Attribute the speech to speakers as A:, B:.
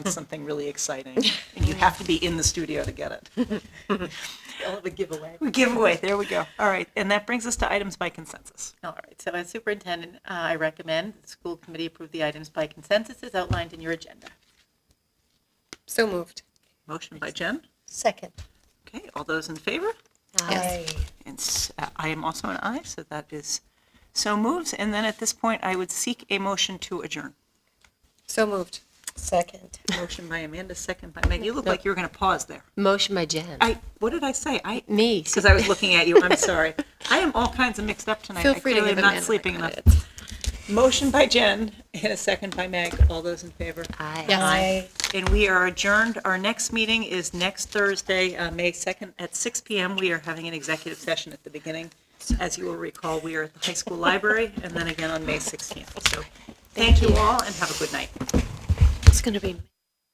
A: something really exciting, and you have to be in the studio to get it.
B: All of a giveaway.
A: Giveaway, there we go. All right, and that brings us to items by consensus.
B: All right, so as superintendent, uh, I recommend that the school committee approve the items by consensus as outlined in your agenda.
C: So moved.
A: Motion by Jen.
D: Second.
A: Okay, all those in favor?
D: Aye.
A: And s- uh, I am also an aye, so that is so moves. And then at this point, I would seek a motion to adjourn.
C: So moved.
D: Second.
A: Motion by Amanda, second by Meg. You look like you were going to pause there.
C: Motion by Jen.
A: I, what did I say? I,
C: Me.
A: because I was looking at you, I'm sorry. I am all kinds of mixed up tonight.
C: Feel
A: I
C: free to
A: clearly
C: give
A: am not
C: Amanda
A: sleeping
C: the
A: enough.
C: credits.
A: Motion by Jen and a second by Meg. All those in favor?
C: Aye.
D: Aye.
A: And we are adjourned. Our next meeting is next Thursday, uh, May 2nd at 6 PM. We are having an executive session at the beginning. As you will recall, we are at the high school library and then again on May 16th. So thank you all and have a good night.
C: It's going to be.